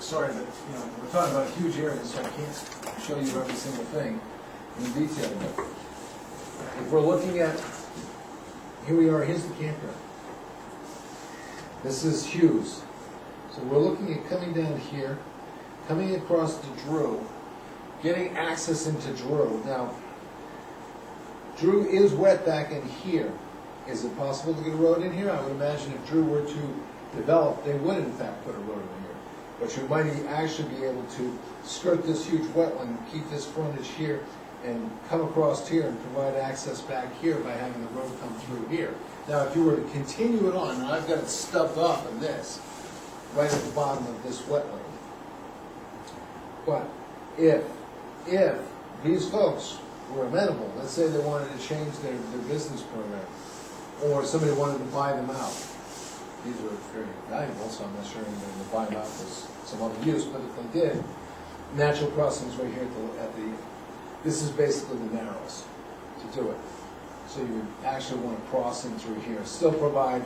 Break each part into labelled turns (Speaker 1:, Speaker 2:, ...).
Speaker 1: sorry, but, you know, we're talking about a huge area, so I can't show you every single thing in detail, but if we're looking at, here we are, here's the campground. This is Hughes. So we're looking at coming down here, coming across to Drew, getting access into Drew. Now, Drew is wet back in here. Is it possible to get a road in here? I would imagine if Drew were to develop, they would in fact put a road in here. But you might e- actually be able to skirt this huge wetland, keep this frontage here, and come across here and provide access back here by having the road come through here. Now, if you were to continue it on, and I've got it stubbed off in this, right at the bottom of this wetland. But if, if these folks were amenable, let's say they wanted to change their, their business program, or somebody wanted to buy them out, these are very valuable, so I'm not sure anybody would buy them out for some other use, but if they did, natural crossings right here at the, at the, this is basically the narrows to do it. So you would actually want to cross in through here, still provide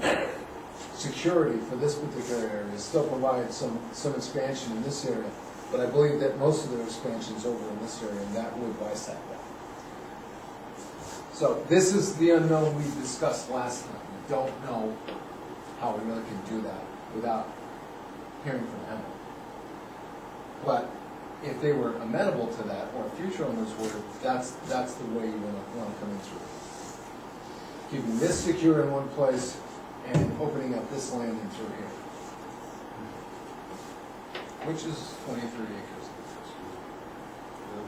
Speaker 1: security for this particular area, still provide some, some expansion in this area, but I believe that most of their expansion's over in this area, and that would bisect that. So this is the unknown we discussed last time, we don't know how we really can do that without hearing from Emily. But if they were amenable to that, or future owners were, that's, that's the way you wanna, wanna come in through. Keeping this secure in one place and opening up this landing through here. Which is twenty-three acres.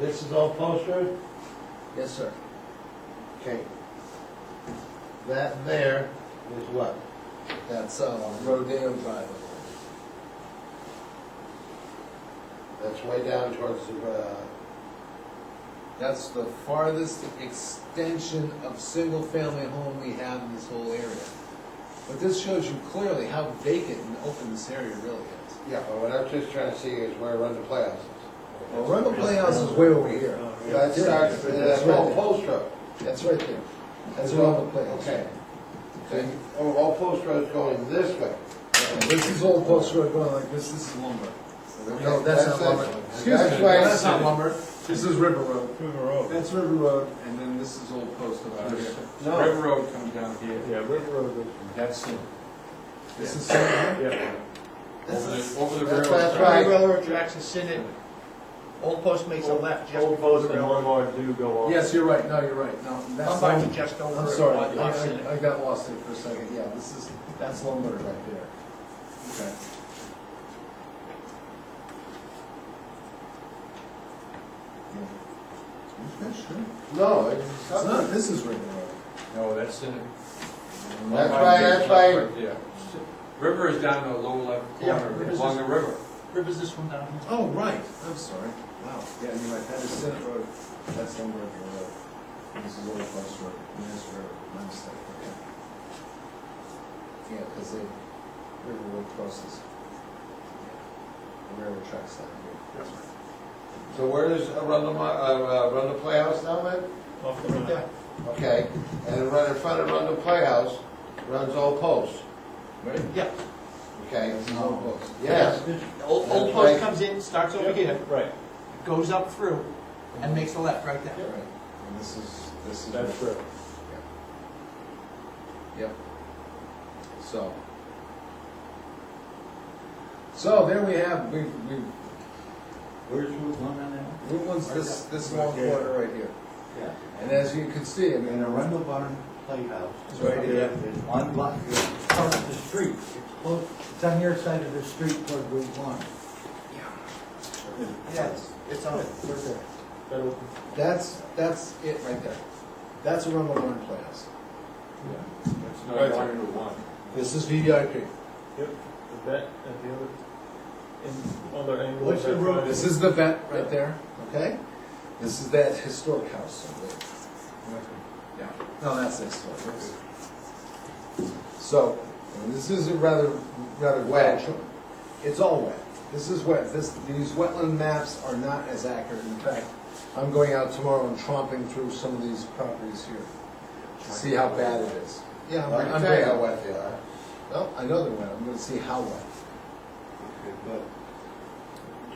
Speaker 2: This is all posted?
Speaker 1: Yes, sir.
Speaker 2: Okay. That there is what?
Speaker 1: That's, uh, Rodeo Drive.
Speaker 2: That's way down towards the, uh,
Speaker 1: That's the farthest extension of single-family home we have in this whole area. But this shows you clearly how vacant and open this area really is.
Speaker 2: yeah, but what I'm just trying to see is where Rundle Playhouse
Speaker 1: Well,
Speaker 2: is.
Speaker 1: Rundle Playhouse is way over here.
Speaker 2: That starts,
Speaker 1: Yeah,
Speaker 2: that's
Speaker 1: right
Speaker 2: all
Speaker 1: there.
Speaker 2: post road.
Speaker 1: That's right there. That's Rundle Playhouse.
Speaker 2: Okay.
Speaker 1: Okay.
Speaker 2: Oh, all post roads going this way.
Speaker 1: Yeah, This is Old Post Road going like this, this is lumber.
Speaker 2: Okay, that's it.
Speaker 1: Excuse me,
Speaker 2: That's why I
Speaker 1: that's
Speaker 2: said
Speaker 1: not
Speaker 2: it.
Speaker 1: lumber, this is River Road.
Speaker 3: River Road.
Speaker 1: That's River Road, and then this is Old Post over here.
Speaker 2: No.
Speaker 3: River Road comes down here.
Speaker 4: Yeah, River Road.
Speaker 3: That's it.
Speaker 1: This is Salem.
Speaker 4: Yeah.
Speaker 3: Over the, over the
Speaker 2: That's
Speaker 3: railroad.
Speaker 2: that's right.
Speaker 5: Railroad tracks and sit in. Old Post makes a left, just
Speaker 4: Old
Speaker 5: before
Speaker 4: Post
Speaker 5: the
Speaker 4: and
Speaker 5: railroad.
Speaker 4: Lombard do go on.
Speaker 1: Yes, you're right, no, you're right, no,
Speaker 5: Come
Speaker 1: that's
Speaker 5: by
Speaker 1: lumber.
Speaker 5: to just over.
Speaker 1: I'm
Speaker 5: it,
Speaker 1: sorry,
Speaker 5: one
Speaker 1: I,
Speaker 5: left sit in.
Speaker 1: I- I got lost there for a second, yeah, this is, that's lumber right there. Okay. Yeah. Okay, sure.
Speaker 2: No, it's
Speaker 1: It's
Speaker 2: not.
Speaker 1: not, this is River Road.
Speaker 3: No, that's it.
Speaker 2: That's why- that's why-
Speaker 3: Yeah. River is down in the lower left
Speaker 5: Yeah,
Speaker 3: corner,
Speaker 5: River's
Speaker 3: along
Speaker 5: is-
Speaker 3: the river.
Speaker 5: Rivers this one down here.
Speaker 1: Oh, right, I'm sorry, wow, yeah, you're right, that is Senate Road, that's Lumber Road. This is Old Post Road, and this road, my mistake, okay. Yeah, because they, River Road crosses. The railroad tracks down here.
Speaker 2: So where is Rundle, Mi- uh, uh, Rundle Playhouse now, man?
Speaker 4: Off the road.
Speaker 5: Yeah.
Speaker 2: Okay, and right in front of Rundle Playhouse runs Old Post,
Speaker 1: Right?
Speaker 5: Yeah,
Speaker 2: okay?
Speaker 1: This is Old Post.
Speaker 2: Yes,
Speaker 5: The Old, Old
Speaker 2: That's
Speaker 5: Post
Speaker 2: right.
Speaker 5: comes in, starts over here,
Speaker 4: Right,
Speaker 5: goes up through, and makes a left right there.
Speaker 1: Right, and this is, this is.
Speaker 4: that's true.
Speaker 1: Yep. So. So there we have, we, we,
Speaker 5: Where's Route one on that?
Speaker 1: Route one's this, this long corner right here. And as you can see, I mean,
Speaker 6: And Arundel Barn Playhouse.
Speaker 1: It's right here.
Speaker 6: Is on block, it's part of the street. It's close, it's on your side of the street toward Route One.
Speaker 5: Yes, it's on it.
Speaker 4: That'll-
Speaker 1: That's, that's it right there. That's a Rumble Barn Playhouse.
Speaker 3: It's not going to one.
Speaker 1: This is VDIP.
Speaker 4: That, and the other, and other angle.
Speaker 6: What's the road?
Speaker 1: This is the vet right there, okay? This is that historic house over there. Yeah, no, that's the historic house. So, and this is a rather, rather wet. It's all wet. This is wet. This, these wetland maps are not as accurate. In fact, I'm going out tomorrow and tromping through some of these properties here to see how bad it is. Yeah,
Speaker 2: I
Speaker 1: I'm,
Speaker 2: can
Speaker 1: I'm
Speaker 2: tell you
Speaker 1: very
Speaker 2: how
Speaker 1: wet.
Speaker 2: wet they are.
Speaker 1: Well, I know they're wet. I'm gonna see how wet.
Speaker 6: But